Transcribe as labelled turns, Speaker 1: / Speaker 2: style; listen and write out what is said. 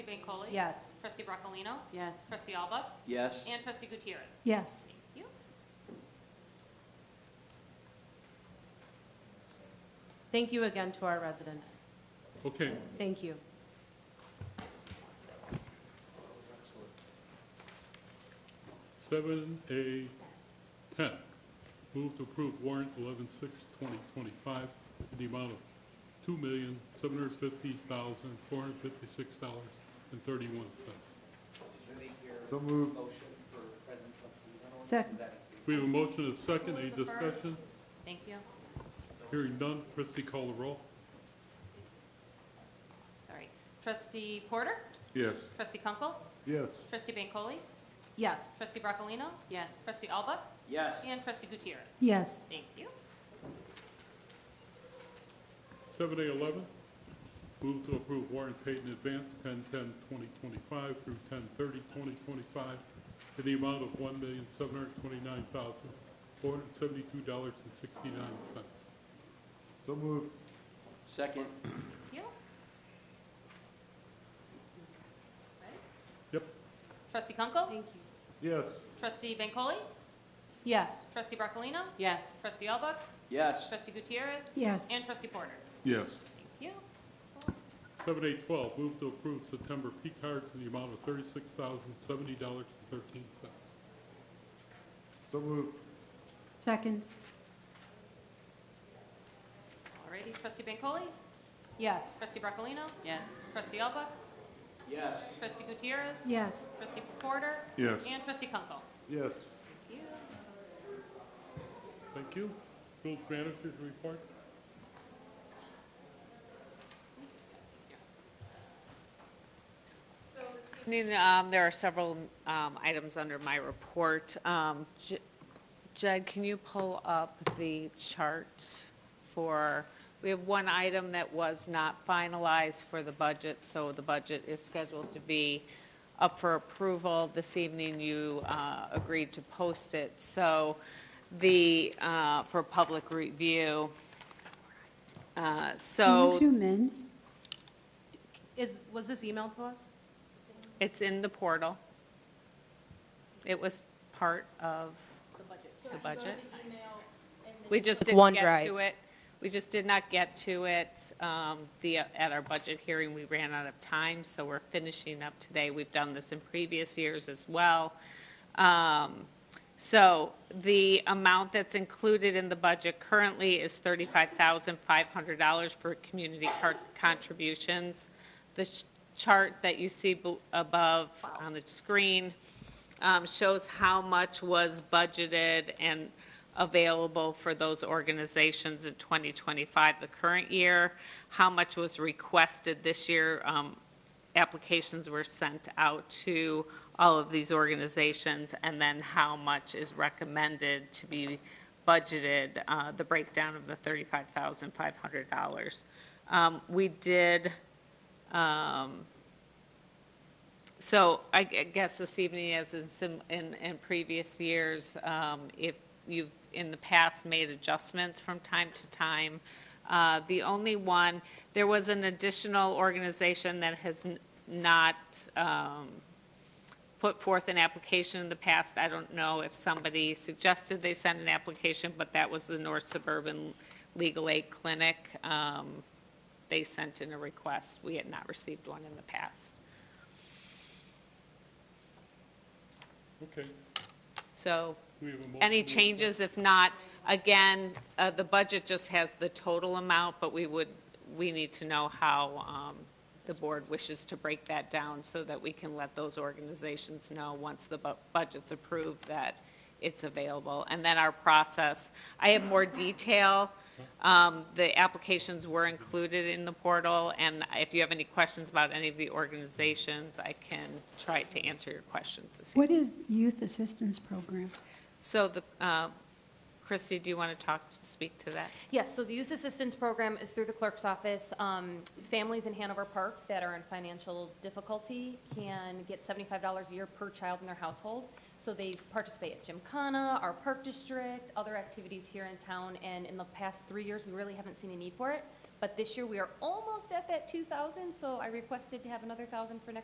Speaker 1: Trustee Bancole?
Speaker 2: Yes.
Speaker 1: Trustee Broccolino?
Speaker 3: Yes.
Speaker 1: Trustee Alba?
Speaker 4: Yes.
Speaker 1: And Trustee Gutierrez?
Speaker 2: Yes.
Speaker 1: Thank you.
Speaker 3: Thank you again to our residents.
Speaker 5: Okay,
Speaker 3: Thank you.
Speaker 5: seven A ten, move to approve warrant eleven six twenty twenty-five in the amount of two million, seven hundred fifty thousand, four hundred fifty-six dollars and thirty-one cents.
Speaker 6: Should make your
Speaker 5: So moved.
Speaker 6: motion for present trustees. I don't know if
Speaker 2: Second.
Speaker 6: that-
Speaker 5: We have a motion and a second, any
Speaker 1: Who was the first?
Speaker 5: discussion?
Speaker 1: Thank you.
Speaker 5: Hearing none, Christie call the roll.
Speaker 1: Sorry. Trustee Porter?
Speaker 5: Yes.
Speaker 1: Trustee Kunkel?
Speaker 5: Yes.
Speaker 1: Trustee Bancole?
Speaker 3: Yes.
Speaker 1: Trustee Broccolino?
Speaker 3: Yes.
Speaker 1: Trustee Alba?
Speaker 4: Yes.
Speaker 1: And Trustee Gutierrez?
Speaker 2: Yes.
Speaker 1: Thank you.
Speaker 5: Seven A eleven, move to approve warrant paid in advance ten ten twenty twenty-five through ten thirty twenty twenty-five in the amount of one million, seven hundred twenty-nine thousand, four hundred seventy-two dollars and sixty-nine cents.
Speaker 4: So moved. Second.
Speaker 1: Thank you.
Speaker 5: Yep.
Speaker 1: Trustee Kunkel?
Speaker 3: Thank you.
Speaker 5: Yes.
Speaker 1: Trustee Bancole?
Speaker 3: Yes.
Speaker 1: Trustee Broccolino?
Speaker 3: Yes.
Speaker 1: Trustee Alba?
Speaker 4: Yes.
Speaker 1: Trustee Gutierrez?
Speaker 2: Yes.
Speaker 1: And Trustee Porter?
Speaker 5: Yes.
Speaker 1: Thank you.
Speaker 5: Seven A twelve, move to approve September P cards in the amount of thirty-six thousand, seventy dollars and thirteen cents.
Speaker 4: So moved.
Speaker 2: Second.
Speaker 1: Alrighty, Trustee Bancole?
Speaker 3: Yes.
Speaker 1: Trustee Broccolino?
Speaker 3: Yes.
Speaker 1: Trustee Alba?
Speaker 4: Yes.
Speaker 1: Trustee Gutierrez?
Speaker 2: Yes.
Speaker 1: Trustee Porter?
Speaker 5: Yes.
Speaker 1: And Trustee Kunkel?
Speaker 5: Yes.
Speaker 1: Thank you.
Speaker 5: Thank you. Village managers report.
Speaker 7: evening, um, there are several um, items under my report. Um, J- Jed, can you pull up the chart for, we have one item that was not finalized for the budget, so the budget is scheduled to be up for approval. This evening, you uh, agreed to post it, so the, uh, for public review. Uh,
Speaker 2: Can
Speaker 7: So
Speaker 2: you zoom in?
Speaker 3: Is, was this emailed to us?
Speaker 7: It's in the portal. It was part of the budget. We just didn't get to it. We just did not get to it. um, The, at our budget hearing, we ran out of time, so we're finishing up today. We've done this in previous years as well. Um, So the amount that's included in the budget currently is $35,500 for community cart- contributions. The ch- chart that you see bel- above on the screen um, shows how much was budgeted and available for those organizations in 2025, the current year, how much was requested this year. Um, Applications were sent out to all of these organizations, and then how much is recommended to be budgeted, uh, the breakdown of the $35,500. Um, We did, um, so I gu- guess this evening, as in some, in, in previous years, um, if you've in the past made adjustments from time to time, uh, the only one, there was an additional organization that has n- not, um, put forth an application in the past. I don't know if somebody suggested they send an application, but that was the North Suburban Legal Aid Clinic. Um, They sent in a request. We had not received one in the past.
Speaker 5: Okay,
Speaker 7: So
Speaker 5: we have a motion.
Speaker 7: any
Speaker 5: and a
Speaker 7: changes? If not, again, uh, the budget just has the total amount, but we would, we need to know how um, the board wishes to break that down so that we can let those organizations know once the bu- budget's approved that it's available. And then our process, I have more detail. Um, The applications were included in the portal, and if you have any questions about any of the organizations, I can try to answer your questions this evening.
Speaker 2: What is youth assistance program?
Speaker 7: So the, uh, Christie, do you want to talk, speak to that?
Speaker 8: Yes, so the youth assistance program is through the clerk's office. Um, Families in Hanover Park that are in financial difficulty can get $75 a year per child in their household. So they participate at Gymkhana, our park district, other activities here in town, and in the past three years, we really haven't seen a need for it. But this year, we are almost at that 2,000, so I requested to have another 1,000 for next